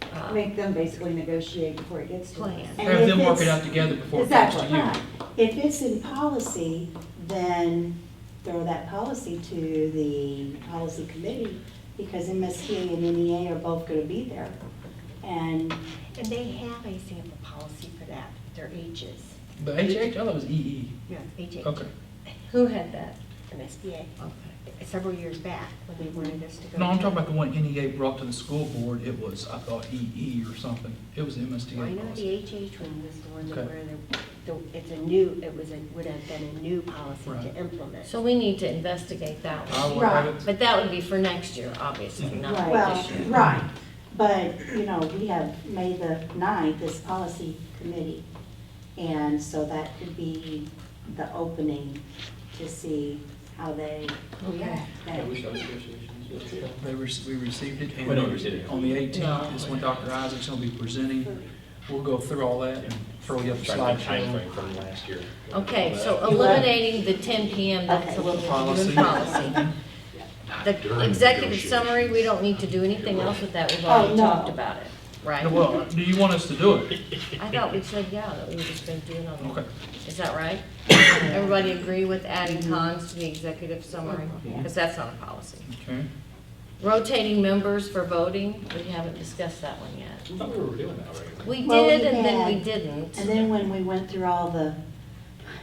Uh, not make them basically negotiate before it gets to us. Plan. And Have if them work it it's- out together before it comes to Exactly. you. If it's in policy, then throw that policy to the policy committee, because MSTA and NEA are both gonna be there. And, And they have a sample policy for that, their ages. But HH, I thought it was EE. Yeah. Ages. E. Okay. Who had that? MSBA, several years back, when they wanted us to go. No, I'm to- talking about the one NEA brought to the school board. It was, I thought, EE or something. It was Well, I MSTA know the policy. HH one was the one that Okay. where the, the, it's a new, it was, a would have been a new policy Right. to implement. So we need to investigate that I one. will have it- But that would be for next year, obviously, not well, this year. right, but, you know, we have May the ninth, this policy committee. And so that could be the opening to see how they. Yeah. that- They, rec- we received it. and We don't receive it. On the eighteenth is when Dr. Isaac's gonna be presenting. We'll go through all that and throw you up a Trying to slideshow. timeframe from last year. Uh, Okay, so oh. You want- eliminating the ten PM, that's Okay. a little Policy. policy. Not during The executive negotiations. summary, we don't need to do anything else with that, we've Oh, already no. talked about it, right? Well, do you want us to do it? I thought we said, yeah, that we were just gonna do it on Okay. the, is that right? Everybody agree with adding cons to the executive summary? Because that's not a policy. Okay. Rotating members for voting, we haven't discussed that one yet. I thought we were doing that already. We Well, did, we and then we had- didn't. And then when we went through all the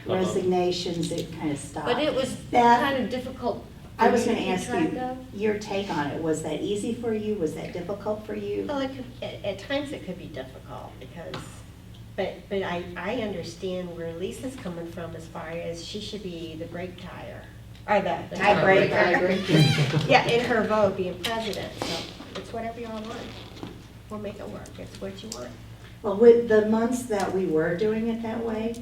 resignations, it kind of stopped. But it was That- kind of difficult. I was for me gonna ask keep track you, of. your take on it, was that easy for you, was that difficult for you? Oh. Well, it could, at, at times it could be difficult because, but, but I, I understand where Lisa's coming from as far as she should be the brake tire, or the The tiebreaker. tiebreaker. Yeah, in her vote being president, so it's whatever y'all want. We'll make it work. It's what you want. Well, with the months that we were doing it that way,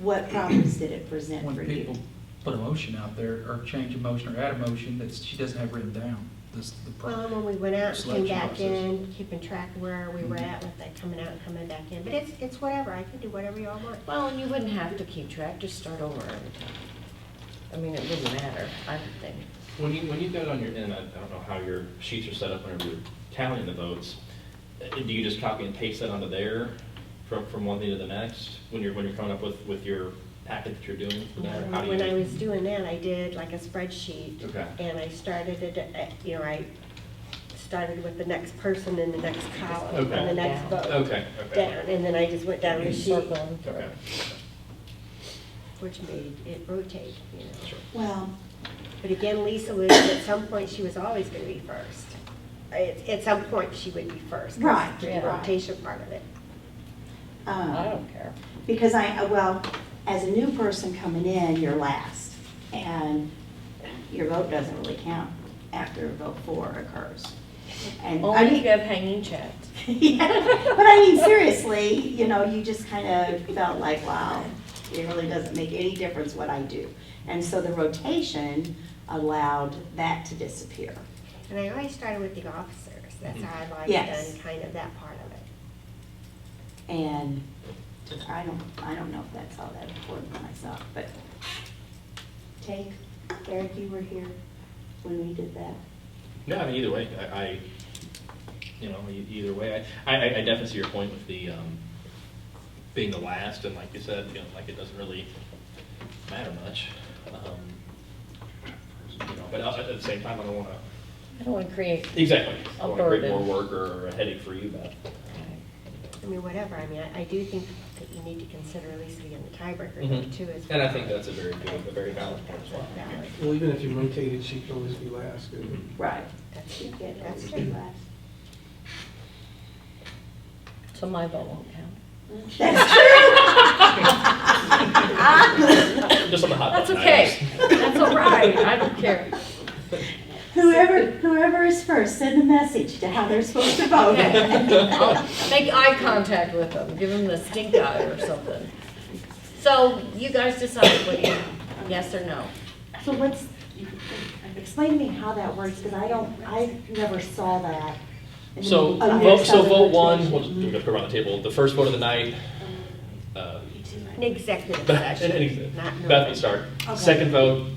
what problems did it present When for you? people put a motion out there, or change a motion, or add a motion that she doesn't have written down, this, the Well, problem. when we went out, and came Selection back process. in, keeping track of where we were at with that, coming out and coming back in, but it's, it's whatever. I can do whatever y'all want. Well, and you wouldn't have to keep track, just start over every time. I mean, it wouldn't matter, I don't think. When you, when you go on your, and I I don't know how your sheets are set up whenever you're tallying the votes, uh, do you just copy and paste that onto there from, from one thing to the next when you're, when you're coming up with, with your packet that you're doing? for that, or how do Um, When you- I was doing that, I did like a spreadsheet. Okay. And I started it, at- you know, I started with the next person in the next column, and Okay. the next vote. Okay, Down, okay. and then I just went down the sheet, Circle them through. Okay. which made it rotate, you know. Sure. Well, But again, Lisa was, at some point, she was always gonna be first. At, at some point, she would be first. 'cause Right, The yeah. rotation part of it. I um, don't care. because I, uh, well, as a new person coming in, you're last, and your vote doesn't really count after vote four occurs. And I Only if mean- you have hanging chats. Yeah, but I mean, seriously, you know, you just kind of felt like, wow, it really doesn't make any difference what I do. And so the rotation allowed that to disappear. And I always started with the officers, that's how I've always Yes. done kind of that part of it. And I don't, I don't know if that's all that important to myself, but take, Eric, you were here when we did that. No, I mean, either way, I, I, you know, e- either way, I, I, I definitely see your point with the, um, being the last, and like you said, you know, like it doesn't really matter much. Um, You know, But I- at the same time, I don't wanna, I don't want to create, exactly, I A don't wanna create more burden. work or a headache for you, but. I mean, whatever, I mean, I, I do think that you need to consider Lisa being the tiebreaker though, too, as well. Mm-hmm. And I think that's a very good, a very valid point as well. Valid. Well, even if you rotate it, she can always be last. and- Right. That's You true, get that's those true. two last. so my vote won't count. That's true. Just on the hot That's button okay, items. that's all right, I don't care. Whoever, whoever is first, send a message to how they're supposed to vote. Okay. I'll Make eye contact with them, give them the stink eye or something. So you guys decide what you, yes or no? So what's, explain to me how that works, because I don't, I never saw that. in the- So, Oh, you vote, saw so the vote one, we'll rotation. just we'll go around the table, the first vote of the night, uh, An executive Beth session, not. Beth normal. will start. Okay. Second vote,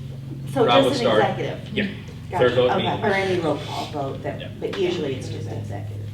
So Rob would just an start. executive? Yeah. Gotcha. Third vote, Okay, me. Or any roll call vote, Yeah. that, but usually it's just executive.